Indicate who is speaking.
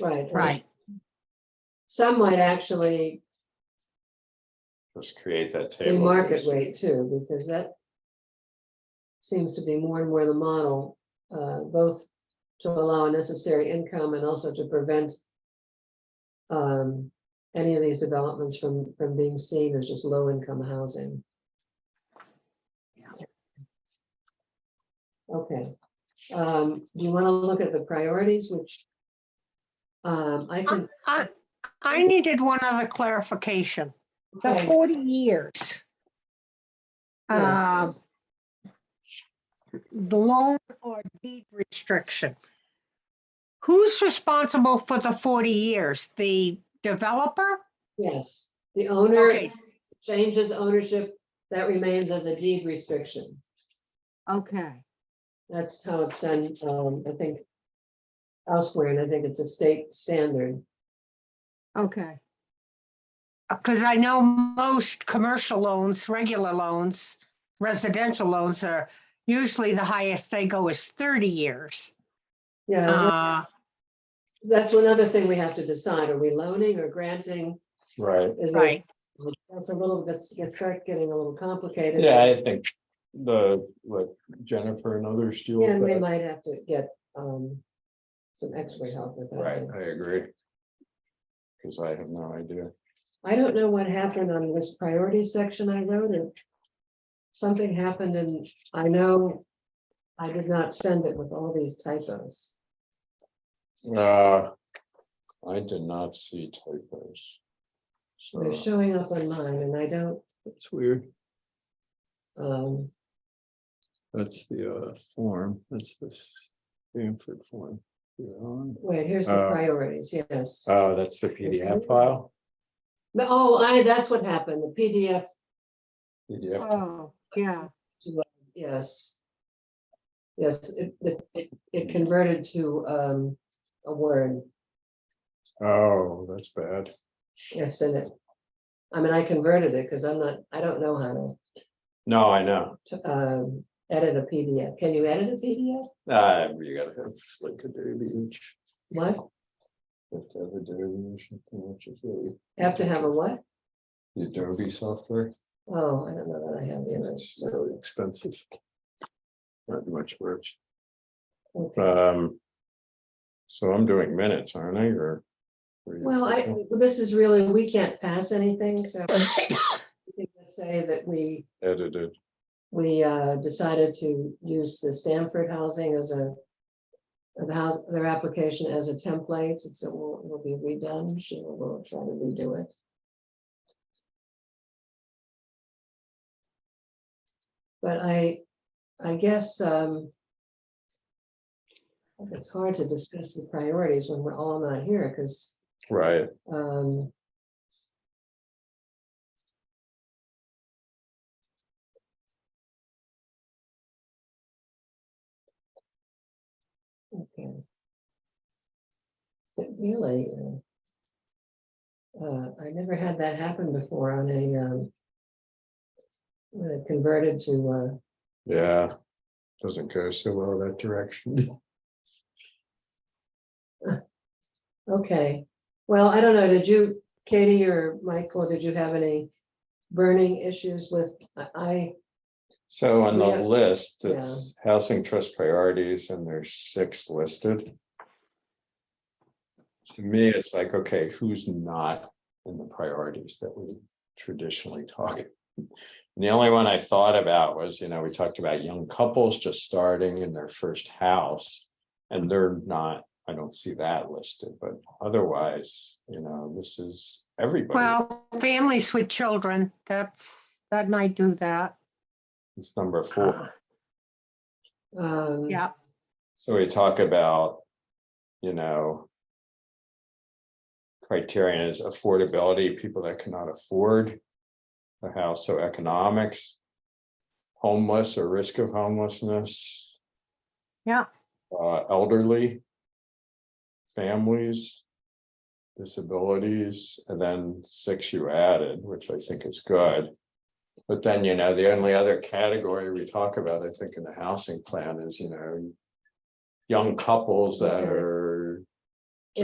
Speaker 1: right. or
Speaker 2: Right.
Speaker 1: Some might actually
Speaker 3: Just create that
Speaker 1: be
Speaker 3: table.
Speaker 1: market
Speaker 3: first.
Speaker 1: rate too, because that seems to be more and more the model, uh, both to allow a necessary income and also to prevent um, any of these developments from, from being seen as just low income housing.
Speaker 2: Yeah.
Speaker 1: Okay, um, do you want to look at the priorities, which um, I can.
Speaker 2: I, I needed one other clarification. The
Speaker 1: okay,
Speaker 2: 40 years.
Speaker 1: yes,
Speaker 2: Um,
Speaker 1: yes.
Speaker 2: the loan or deed restriction. Who's responsible for the 40 years? The developer?
Speaker 1: Yes, the owner
Speaker 2: Okay,
Speaker 1: changes ownership, that remains as a deed restriction.
Speaker 2: okay,
Speaker 1: That's how it's done, um, I think elsewhere, and I think it's a state standard.
Speaker 2: okay. Because Uh, I know most commercial loans, regular loans, residential loans are usually the highest they go is 30 years.
Speaker 1: Yeah,
Speaker 2: Uh,
Speaker 1: that's another thing we have to decide. Are we loaning or granting?
Speaker 3: Right,
Speaker 1: Is it,
Speaker 2: Right,
Speaker 1: that's a little, this gets, start getting a little complicated.
Speaker 3: yeah, I think the, what Jennifer and others do.
Speaker 1: Yeah,
Speaker 3: with
Speaker 1: and we
Speaker 3: that.
Speaker 1: might have to get, um, some extra help with that.
Speaker 3: Right, I agree. Cause I have no idea.
Speaker 1: I don't know what happened on this priority section I wrote and something happened and I know I did not send it with all these typos.
Speaker 3: Uh, I did not see typos.
Speaker 1: They're
Speaker 3: So
Speaker 1: showing up on mine and I don't,
Speaker 3: that's weird.
Speaker 1: um,
Speaker 3: That's the uh form. That's the Stanford form. You're on.
Speaker 1: wait, here's the
Speaker 3: Uh,
Speaker 1: priorities, yes.
Speaker 3: Oh, that's the PDF file?
Speaker 1: But, oh, I, that's what happened, the PDF,
Speaker 3: PDF.
Speaker 2: oh, yeah,
Speaker 1: yes. Yes, it, it- it, it converted to, um, a word,
Speaker 3: Oh, that's bad.
Speaker 1: yes, and it. I mean, I converted it because I'm not, I don't know how to.
Speaker 3: No, I know.
Speaker 1: to um, edit a PDF. Can you edit a PDF?
Speaker 3: Uh, you gotta have like Adobe image.
Speaker 1: What?
Speaker 3: You have to have Adobe or something, which is really
Speaker 1: Have to have a what?
Speaker 3: the Adobe software.
Speaker 1: Oh, I don't know that I have the
Speaker 3: and
Speaker 1: image.
Speaker 3: It's really expensive. Not much work.
Speaker 1: Okay.
Speaker 3: Um. So I'm doing minutes, aren't I, or? or you-
Speaker 1: Well, I, this is really, we can't pass anything, so we can just say that we,
Speaker 3: Edited,
Speaker 1: we uh, decided to use the Stanford housing as a of house, their application as a template, and so will, will be redone. She will, will try to redo it. But I, I guess, um, it's hard to discuss the priorities when we're all not here, because,
Speaker 3: right,
Speaker 1: um, okay. But really, uh, uh, I never had that happen before on a, um, when it converted to, uh,
Speaker 3: yeah. Doesn't go so well that direction.
Speaker 1: uh, Okay, well, I don't know, did you, Katie or Michael, did you have any burning issues with, I- I,
Speaker 3: So on the
Speaker 1: Yeah.
Speaker 3: list, it's housing trust priorities and there's six listed. To me, it's like, okay, who's not in the priorities that we traditionally talk? And The only one I thought about was, you know, we talked about young couples just starting in their first house. And they're not, I don't see that listed, but otherwise, you know, this is everybody.
Speaker 2: well, families with children, that's, that might do that.
Speaker 3: It's number four.
Speaker 1: um,
Speaker 2: Yeah,
Speaker 3: So we talk about, you know. Criterion is affordability, people that cannot afford the house, so economics. Homeless or risk of homelessness.
Speaker 2: Yeah.
Speaker 3: Uh, elderly. Families. Disabilities, and then six you added, which I think is good. But then, you know, the only other category we talk about, I think, in the housing plan is, you know, young couples that
Speaker 1: Okay.
Speaker 3: are